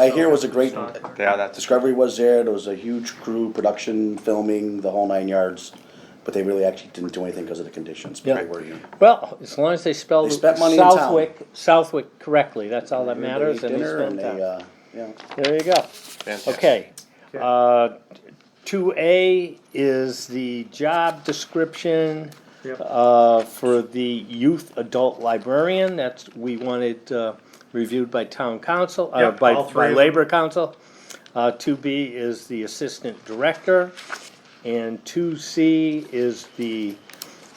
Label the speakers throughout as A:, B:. A: I hear it was a great,
B: Yeah, that's,
A: Discovery was there, there was a huge crew, production, filming, the whole nine yards, but they really actually didn't do anything because of the conditions, but they
C: Yeah.
A: were here.
C: Well, as long as they spell
A: They spent money in town.
C: Southwick, Southwick correctly, that's all that matters,
A: They ate
C: and they
A: dinner
C: spent
A: they,
C: time.
A: uh, yeah.
C: There you go.
B: Fantastic.
C: Okay. Uh, Two A is the job description
D: Yep.
C: uh, for the youth adult librarian. That's, we wanted uh, reviewed by town council, uh,
D: Yep,
C: by
D: all three
C: by
D: of them.
C: labor council. Uh, Two B is the assistant director. And two C is the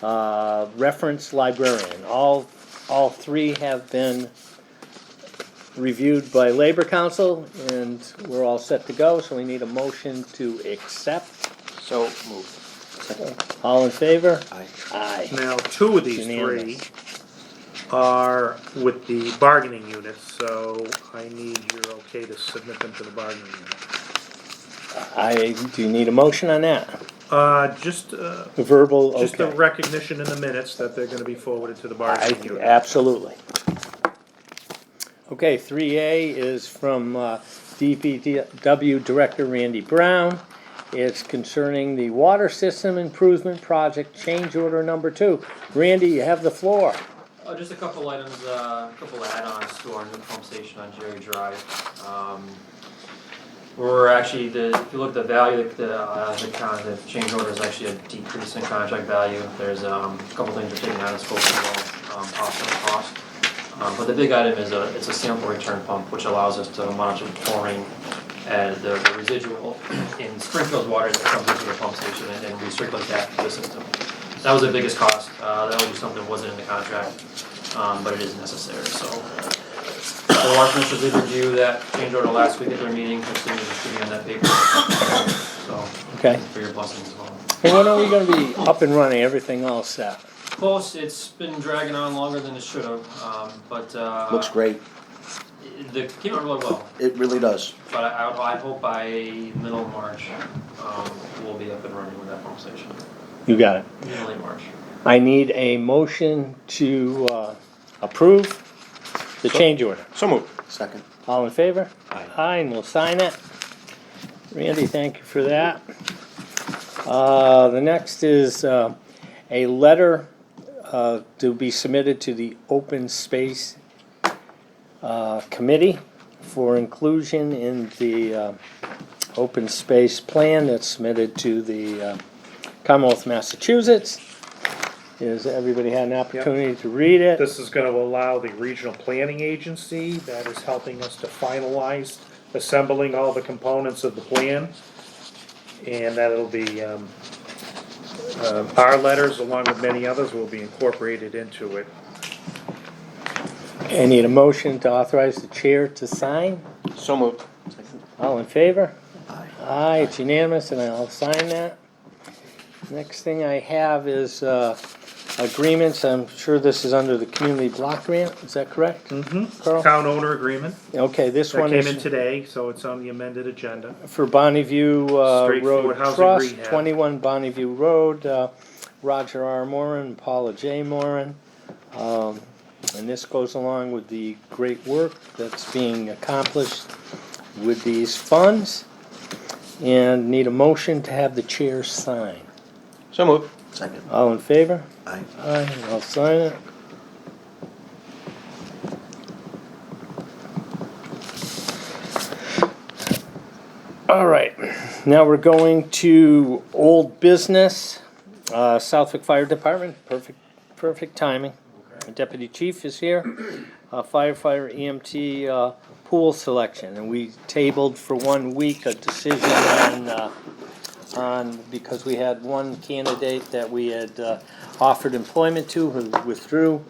C: uh, reference librarian. All, all three have been reviewed by Labor Council, and we're all set to go, so we need a motion to accept.
B: so moved.
C: All in favor?
B: Aye.
C: Aye.
D: Now, two of these three
C: Unanimous.
D: are with the bargaining units, so I need your okay to submit them to the bargaining unit.
C: I, do you need a motion on that?
D: Uh, just, uh,
C: The Verbal,
D: just the
C: okay.
D: recognition in the minutes that they're gonna be forwarded to the
C: I-
D: bargaining unit.
C: Absolutely. Okay, three A is from uh, DPW Director Randy Brown. It's concerning the water system improvement project, change order number two. Randy, you have the floor.
E: Uh, just a couple items, uh, a couple add-ons to our new pump station on Jerry Drive. Um, We're actually, the, if you look at the value, the, the, uh, the con, the change order is actually a decrease in contract value. There's, um, a couple things we're taking out of scope as well, um, possible cost. Um, but the big item is a, it's a sample return pump, which allows us to monitor chlorine and the the residual in Springfield's water that comes into the pump station and then recirculate that to the system. That was the biggest cost, uh, that was something that wasn't in the contract, um, but it is necessary, so. The water commissioners did review that change order last week at their meeting, considering distributing that paper, so,
C: Okay.
E: for your blessings as well.
C: Well, When are we gonna be up and running, everything all set?
E: Close, it's been dragging on longer than it should have, um, but, uh.
A: Looks great,
E: The, came out really well,
A: it really does.
E: but I, I would- I hope by middle of March, um, we'll be up and running with that pump station,
C: You got it.
E: middle of March.
C: I need a motion to uh, approve the change order.
B: So moved.
A: Second,
C: All in favor?
B: Aye.
C: and we'll sign it. Randy, thank you for that. Uh, The next is uh, a letter uh, to be submitted to the Open Space uh, Committee for inclusion in the uh, Open Space Plan that's submitted to the uh, Commonwealth of Massachusetts. Has everybody had an opportunity to read it?
D: This is gonna allow the regional planning agency that is helping us to finalize assembling all the components of the plan. And that'll be, um, um, our letters along with many others will be incorporated into it.
C: I need a motion to authorize the chair to sign.
B: So moved.
C: All in favor?
A: aye.
C: Aye, it's unanimous, and I'll sign that. Next thing I have is uh, agreements. I'm sure this is under the community block grant, is that correct? Mm-hmm. Carl?
D: Town owner agreement
C: Okay, this
D: that
C: one
D: came in
C: is
D: today, so it's on the amended agenda.
C: for Bonneview uh, Road
D: Straightforward housing
C: Trust,
D: rehab.
C: 21 Bonneview Road, uh, Roger R. Moran, Paula J. Moran. Um, And this goes along with the great work that's being accomplished with these funds. And need a motion to have the chair sign.
B: So moved.
A: Second,
C: All in favor?
A: aye.
C: Aye, and I'll sign it. All right, now we're going to old business, uh, Southwick Fire Department, perfect, perfect timing. Deputy Chief is here, uh, firefighter EMT, uh, pool selection, and we tabled for one week a decision on, uh, on, because we had one candidate that we had uh, offered employment to who withdrew,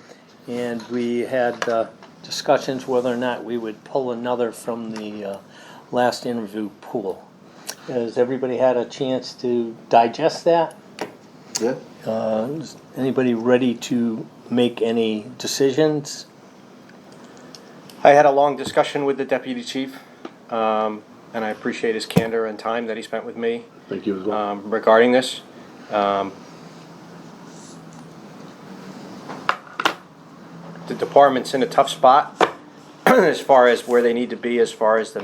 C: and we had uh, discussions whether or not we would pull another from the uh, last interview pool. Has everybody had a chance to digest that?
A: Yeah.
C: Uh, Is anybody ready to make any decisions?
B: I had a long discussion with the deputy chief, um, and I appreciate his candor and time that he spent with me
A: Thank you as
B: um, regarding this. Um, The department's in a tough spot as far as where they need to be, as far as the